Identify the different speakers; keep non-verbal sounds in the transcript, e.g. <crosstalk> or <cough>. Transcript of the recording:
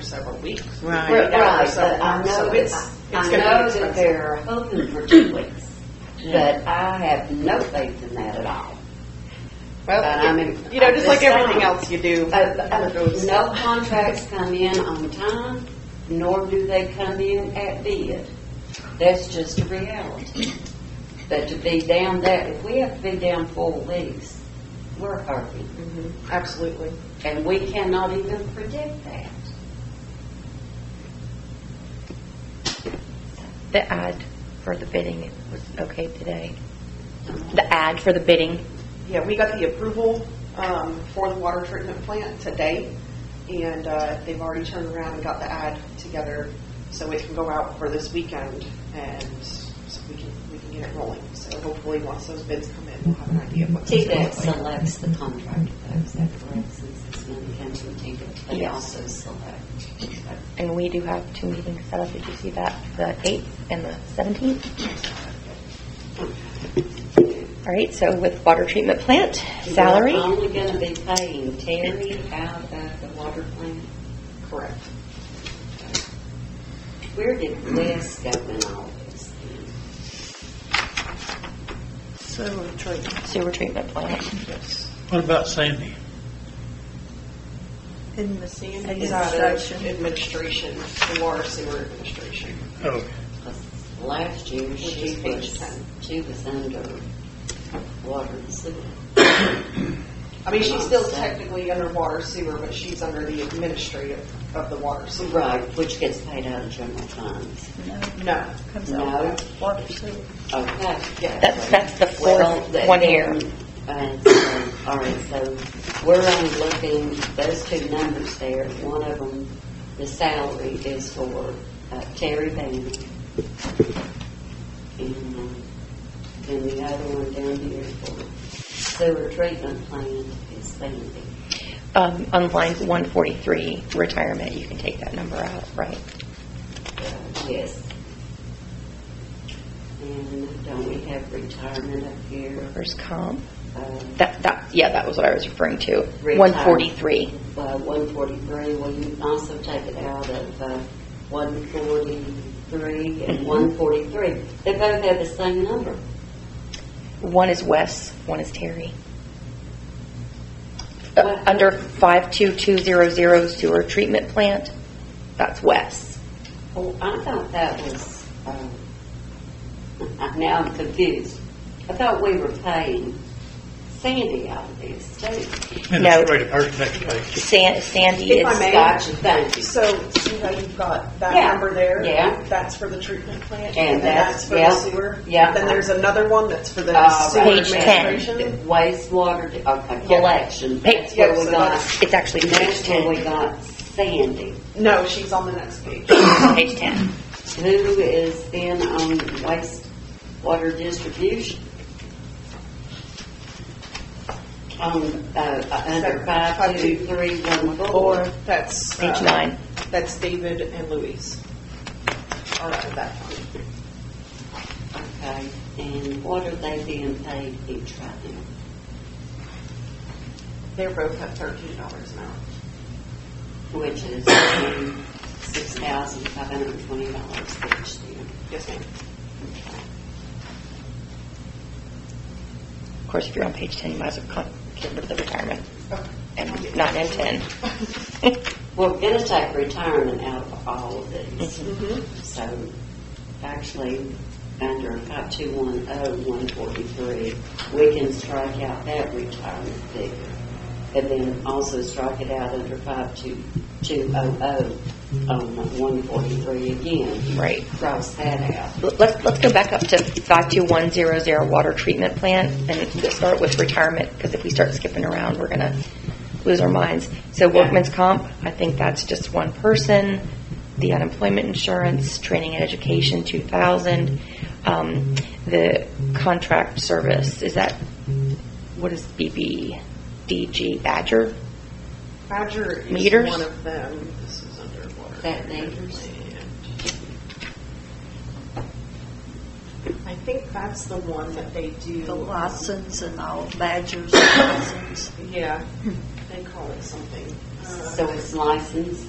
Speaker 1: several weeks.
Speaker 2: Right.
Speaker 1: We're
Speaker 3: Right,
Speaker 1: out for
Speaker 3: but
Speaker 1: several
Speaker 3: I
Speaker 1: months,
Speaker 3: know
Speaker 1: So it's,
Speaker 3: that,
Speaker 1: it's going
Speaker 3: I
Speaker 1: to be
Speaker 3: know that
Speaker 1: expensive.
Speaker 3: they're hoping for two weeks, but I have no faith in that at all. But
Speaker 1: Uh,
Speaker 3: I mean,
Speaker 2: Well, you know, just like
Speaker 3: I'm just
Speaker 2: everything
Speaker 3: saying.
Speaker 2: else you do.
Speaker 3: Uh, uh, No contracts come in on time, nor do they come in at bid. That's just a reality. But to be down there, if we have to be down four weeks, we're hurting,
Speaker 2: Mhm, Absolutely.
Speaker 3: and we cannot even predict that.
Speaker 4: The ad for the bidding was okay today. The ad for the bidding,
Speaker 1: Yeah, we got the approval um, for the water treatment plant today, and uh, they've already turned around and got the ad together, so it can go out for this weekend, and so we can, we can get it rolling. So hopefully, once those bids come in, we'll have an idea of what. it's gonna
Speaker 3: TDEC
Speaker 1: look like.
Speaker 3: selects the contractor, though, is that correct? Since it's money comes from TDEC, they
Speaker 4: Yes.
Speaker 3: also select.
Speaker 4: and we do have two meetings set up. Did you see that? The 8th and the 17th? All right, so with water treatment plant, salary?
Speaker 3: We're only going to be paying Terry out of the water plant.
Speaker 1: Correct.
Speaker 3: Where did Wes go in all this?
Speaker 1: So, treatment.
Speaker 4: Sewer treatment plant.
Speaker 1: Yes.
Speaker 5: What about Sandy?
Speaker 2: In the sand.
Speaker 1: It's out of administration, the water sewer administration.
Speaker 5: Oh,
Speaker 3: Last year,
Speaker 1: Which
Speaker 3: she
Speaker 1: is page
Speaker 3: was,
Speaker 1: 10.
Speaker 3: she was under water and sewer.
Speaker 1: I mean, she's still technically under water sewer, but she's under the administrative of the water sewer.
Speaker 3: Right, which gets paid out of general funds.
Speaker 1: No.
Speaker 3: No? Okay.
Speaker 1: Yeah.
Speaker 4: That's, that's the
Speaker 3: Well,
Speaker 4: fourth
Speaker 3: that-
Speaker 4: one here.
Speaker 3: uh, so, All right, so we're only looking, those two numbers there, one of them, the salary is for uh, Terry Bailey. And uh, then the other one down here for sewer treatment plant is Sandy.
Speaker 4: Um, on line 143, retirement, you can take that number out, right?
Speaker 3: Uh, Yes. And don't we have retirement up here?
Speaker 4: Workers' comp.
Speaker 3: Uh,
Speaker 4: That, that, yeah, that was what I was referring to.
Speaker 3: Retirement.
Speaker 4: 143.
Speaker 3: Uh, 143, will you also take it out of uh, 143 and
Speaker 4: Mhm.
Speaker 1: Mm-hmm.
Speaker 3: 143? They both have the same number.
Speaker 4: One is Wes, one is Terry. Uh,
Speaker 3: What?
Speaker 4: Under 52200 sewer treatment plant, that's Wes.
Speaker 3: Oh, I thought that was, um, I- <laughs> now I'm confused. I thought we were paying Sandy out of this too.
Speaker 5: and
Speaker 4: No.
Speaker 5: it's right at her next page.
Speaker 4: San- Sandy
Speaker 1: If I
Speaker 4: is,
Speaker 1: may-
Speaker 3: Gotcha, thank you.
Speaker 1: So, see how you've got that
Speaker 3: Yeah.
Speaker 1: number there?
Speaker 3: Yeah.
Speaker 1: That's for the treatment plant,
Speaker 3: And
Speaker 1: and that's Oh, for the
Speaker 3: that's- yeah.
Speaker 1: sewer?
Speaker 3: Yeah.
Speaker 1: Then there's another one that's for the
Speaker 3: Uh,
Speaker 1: sewer
Speaker 4: Page 10.
Speaker 1: administration?
Speaker 3: Wastewater, di- okay,
Speaker 1: Yeah.
Speaker 3: collection,
Speaker 4: Pa-
Speaker 3: that's where
Speaker 1: yeah,
Speaker 3: we
Speaker 1: so
Speaker 3: got,
Speaker 1: that's-
Speaker 4: it's actually page
Speaker 3: that's where
Speaker 4: 10.
Speaker 3: we got Sandy.
Speaker 1: No, she's on the next page.
Speaker 4: Page 10.
Speaker 3: Who is then on wastewater distribution? On, uh, under five, two, three, one,
Speaker 1: Or
Speaker 3: four.
Speaker 1: that's,
Speaker 4: Page
Speaker 1: uh,
Speaker 4: 9.
Speaker 1: that's David and Louise. All right, that one.
Speaker 3: Okay, and what are they being paid each right now?
Speaker 1: They're both at thirteen dollars an hour.
Speaker 3: Which is six thousand five hundred and twenty dollars each then.
Speaker 1: Yes, ma'am.
Speaker 4: Of course, if you're on page 10, you might as well con- get rid of the retirement
Speaker 1: Okay.
Speaker 4: and 9 and 10.
Speaker 3: We're gonna take retirement out of all of these.
Speaker 1: Mhm.
Speaker 3: So actually, under five two one oh one forty-three, we can strike out that retirement figure. And then also strike it out under five two two oh oh on one forty-three again.
Speaker 4: Right.
Speaker 3: Cross that out.
Speaker 4: Let's, let's go back up to 52100 water treatment plant and we'll start with retirement because if we start skipping around, we're going to lose our minds. So workman's comp, I think that's just one person. The unemployment insurance, training and education, 2,000. Um, The contract service, is that, what is BBDG Badger?
Speaker 1: Badger is
Speaker 4: Meters?
Speaker 1: one of them. This is underwater.
Speaker 3: That meters?
Speaker 1: I think that's the one that they do.
Speaker 2: The license and all badgers and license.
Speaker 1: Yeah, they call it something. Uh,
Speaker 3: So it's licensed